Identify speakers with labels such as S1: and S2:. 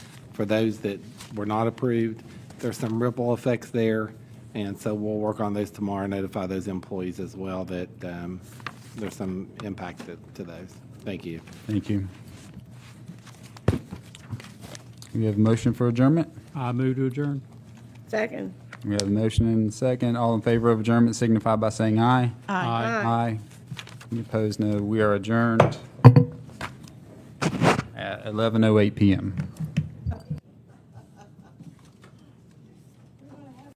S1: for those that were not approved. There's some ripple effects there, and so we'll work on those tomorrow, notify those employees as well that um, there's some impact to- to those. Thank you.
S2: Thank you. We have a motion for adjournment?
S3: I move to adjourn.
S4: Second.
S2: We have a motion and a second. All in favor of adjournment signify by saying aye.
S3: Aye.
S2: Aye. Any opposed, oh no. We are adjourned at 11:08 PM.